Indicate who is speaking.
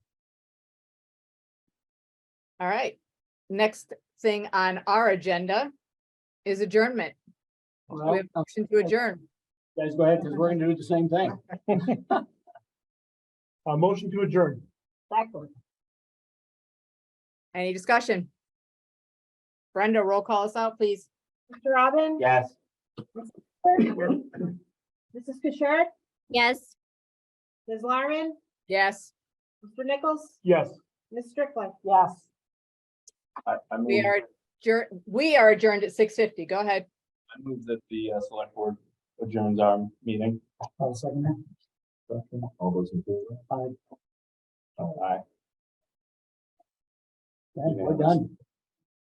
Speaker 1: All right, next thing on our agenda is adjournment. Do
Speaker 2: Well,
Speaker 1: We have a motion to adjourn.
Speaker 2: guys, go ahead, because we're gonna do the same thing.
Speaker 3: A motion to adjourn.
Speaker 1: Any discussion? Brenda, roll call us out, please.
Speaker 4: Mr. Robin?
Speaker 2: Yes.
Speaker 4: Mrs. Fisher?
Speaker 5: Yes.
Speaker 4: Ms. Larmen?
Speaker 1: Yes,
Speaker 4: Mr. Nichols?
Speaker 3: Yes.
Speaker 4: Ms. Strickland? Yes.
Speaker 6: I, I
Speaker 1: we
Speaker 6: move,
Speaker 1: are adjourned, we are adjourned at six fifty. Go ahead.
Speaker 6: I move that the uh, select board adjourns our meeting.
Speaker 2: I'll second that.
Speaker 6: All those in favor?
Speaker 2: Aye.
Speaker 6: Aye.
Speaker 2: Yeah, We're done.